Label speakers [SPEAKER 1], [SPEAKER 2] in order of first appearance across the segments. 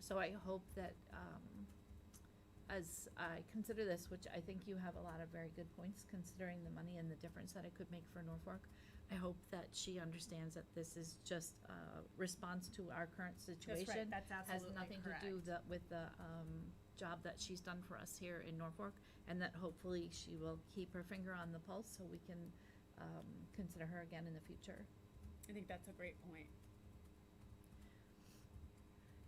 [SPEAKER 1] So I hope that, um, as I consider this, which I think you have a lot of very good points, considering the money and the difference that it could make for Norfolk, I hope that she understands that this is just a response to our current situation.
[SPEAKER 2] That's absolutely
[SPEAKER 1] Has nothing to do
[SPEAKER 2] correct.
[SPEAKER 1] the, with the, um, job that she's done for us here in Norfolk, and that hopefully she will keep her finger on the pulse so we can, um, consider her again in the future.
[SPEAKER 2] I think that's a great point.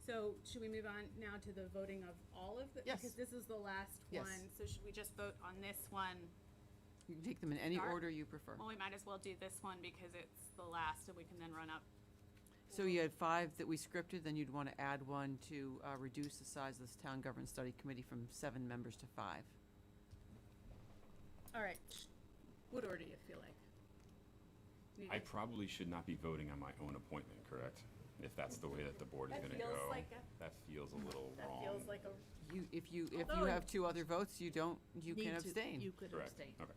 [SPEAKER 2] So should we move on now to the voting of all of the?
[SPEAKER 3] Yes.
[SPEAKER 2] Because this is the last
[SPEAKER 3] Yes.
[SPEAKER 2] one, so should we just vote on this one?
[SPEAKER 3] You can take them in any
[SPEAKER 2] Start.
[SPEAKER 3] order you prefer.
[SPEAKER 2] Well, we might as well do this one because it's the last and we can then run up.
[SPEAKER 3] So you had five that we scripted, then you'd want to add one to uh, reduce the size of the Town Government Study Committee from seven members to five.
[SPEAKER 2] All right, sh- what order do you feel like? You-
[SPEAKER 4] I probably should not be voting on my own appointment, correct? If that's the way that the board is
[SPEAKER 2] That
[SPEAKER 4] gonna
[SPEAKER 2] feels
[SPEAKER 4] go.
[SPEAKER 2] like a-
[SPEAKER 4] That feels a little wrong.
[SPEAKER 2] That feels like a,
[SPEAKER 3] You, if you, if you
[SPEAKER 2] Although-
[SPEAKER 3] have two other votes, you don't, you
[SPEAKER 1] Need
[SPEAKER 3] can
[SPEAKER 1] to-
[SPEAKER 3] abstain.
[SPEAKER 1] You could
[SPEAKER 4] Correct,
[SPEAKER 1] abstain.
[SPEAKER 4] okay.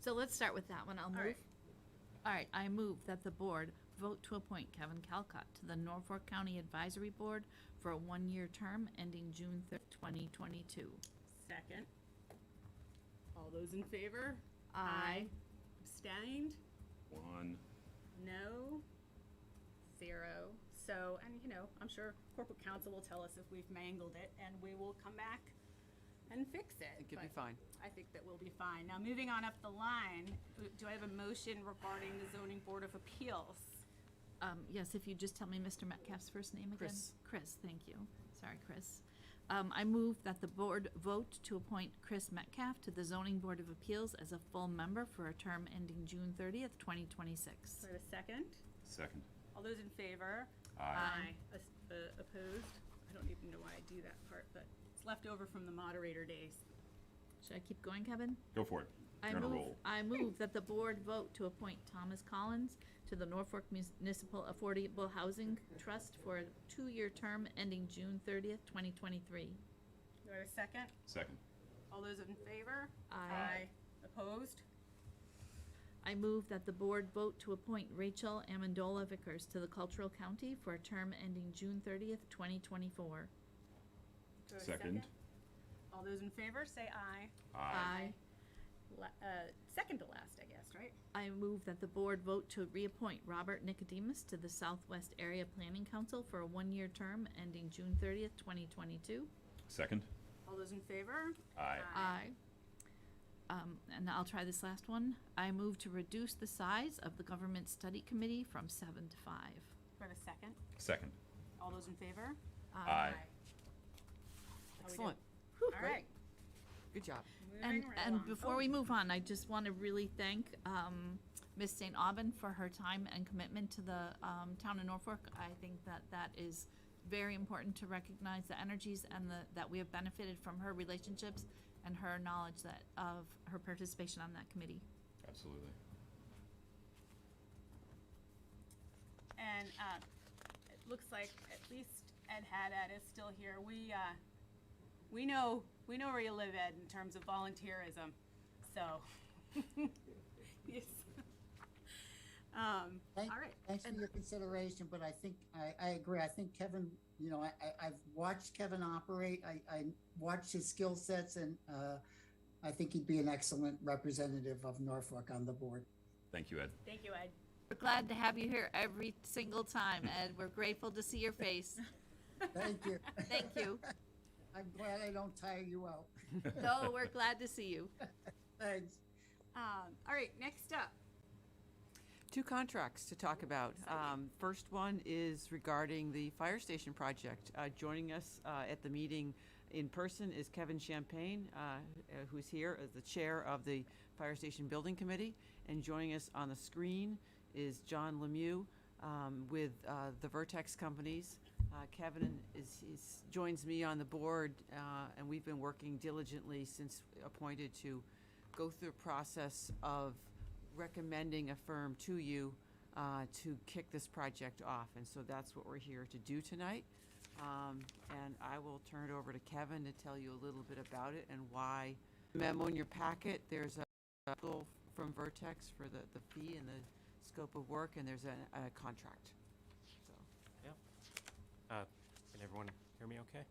[SPEAKER 1] So let's start with that one. I'll
[SPEAKER 2] All right.
[SPEAKER 1] move. All right, I move that the board vote to appoint Kevin Calcott to the Norfolk County Advisory Board for a one-year term ending June 3rd, 2022.
[SPEAKER 2] second. All those in favor?
[SPEAKER 1] Aye.
[SPEAKER 2] Abstained?
[SPEAKER 4] One,
[SPEAKER 2] No, zero. So, and you know, I'm sure corporate counsel will tell us if we've mangled it, and we will come back and fix it.
[SPEAKER 3] It could be
[SPEAKER 2] but
[SPEAKER 3] fine.
[SPEAKER 2] I think that we'll be fine. Now, moving on up the line, do I have a motion regarding the zoning board of appeals?
[SPEAKER 1] Um, Yes, if you just tell me Mr. Metcalf's first name again?
[SPEAKER 3] Chris.
[SPEAKER 1] Chris, thank you. Sorry, Chris. Um, I move that the board vote to appoint Chris Metcalf to the Zoning Board of Appeals as a full member for a term ending June 30th, 2026.
[SPEAKER 2] Do I have a second?
[SPEAKER 4] second.
[SPEAKER 2] All those in favor?
[SPEAKER 4] Aye.
[SPEAKER 2] As- uh, Opposed? I don't even know why I do that part, but it's left over from the moderator days.
[SPEAKER 1] Should I keep going, Kevin?
[SPEAKER 4] Go for it.
[SPEAKER 1] I
[SPEAKER 4] You're on a
[SPEAKER 1] move,
[SPEAKER 4] roll.
[SPEAKER 1] I move that the board vote to appoint Thomas Collins to the Norfolk Municipal Affordable Housing Trust for a two-year term ending June thirtieth, twenty twenty-three.
[SPEAKER 2] Do I have a second?
[SPEAKER 4] Second.
[SPEAKER 2] All those in favor?
[SPEAKER 1] Aye.
[SPEAKER 2] Opposed?
[SPEAKER 1] I move that the board vote to appoint Rachel Amendola Vickers to the Cultural County for a term ending June thirtieth, twenty twenty-four.
[SPEAKER 2] Do I have a
[SPEAKER 4] Second.
[SPEAKER 2] All those in favor, say aye.
[SPEAKER 1] Uh,
[SPEAKER 2] La- uh, Second to last, I guess, right?
[SPEAKER 1] I move that the board vote to reappoint Robert Nicodemus to the Southwest Area Planning Council for a one-year term ending June thirtieth, twenty twenty-two.
[SPEAKER 4] Second.
[SPEAKER 2] All those in favor?
[SPEAKER 4] Aye.
[SPEAKER 1] Aye. Um, and I'll try this last one. I move to reduce the size of the government study committee from seven to five.
[SPEAKER 2] Do I have a second?
[SPEAKER 4] Second.
[SPEAKER 2] All those in favor?
[SPEAKER 4] Aye.
[SPEAKER 3] Excellent.
[SPEAKER 2] All right.
[SPEAKER 3] Good job.
[SPEAKER 1] And,
[SPEAKER 2] Moving right
[SPEAKER 1] and
[SPEAKER 2] along.
[SPEAKER 1] before we move on, I just want to really thank, um, Ms. St. Aubin for her time and commitment to the, um, town of Norfolk. I think that that is very important to recognize the energies and the, that we have benefited from her relationships and her knowledge that, of her participation on that committee.
[SPEAKER 4] Absolutely.
[SPEAKER 2] And uh, it looks like at least Ed Haddad is still here. We, uh, we know, we know where you live, Ed, in terms of volunteerism, so. Yes. Um,
[SPEAKER 5] Thank-
[SPEAKER 2] All right.
[SPEAKER 5] Thanks for your consideration, but I think, I, I agree. I think Kevin, you know, I, I, I've watched Kevin operate. I, I watched his skill sets and, uh, I think he'd be an excellent representative of Norfolk on the board.
[SPEAKER 4] Thank you, Ed.
[SPEAKER 2] Thank you, Ed.
[SPEAKER 1] We're glad to have you here every single time, Ed. We're grateful to see your face.
[SPEAKER 5] Thank you.
[SPEAKER 1] Thank you.
[SPEAKER 5] I'm glad I don't tire you out.
[SPEAKER 1] No, we're glad to see you.
[SPEAKER 5] Thanks.
[SPEAKER 2] Um, All right, next up.
[SPEAKER 3] Two contracts to talk about. Um, First one is regarding the fire station project. Uh, Joining us uh, at the meeting in person is Kevin Champagne, uh, uh, who's here as the chair of the Fire Station Building Committee. And joining us on the screen is John Lemieux um, with uh, the Vertex Companies. Uh, Kevin is, is, joins me on the board, uh, and we've been working diligently since appointed to go through a process of recommending a firm to you uh, to kick this project off. And so that's what we're here to do tonight. Um, And I will turn it over to Kevin to tell you a little bit about it and why. Memo in your packet, there's a goal from Vertex for the, the fee and the scope of work, and there's a, a contract. So,
[SPEAKER 6] Yeah. Uh, And everyone Hear me okay?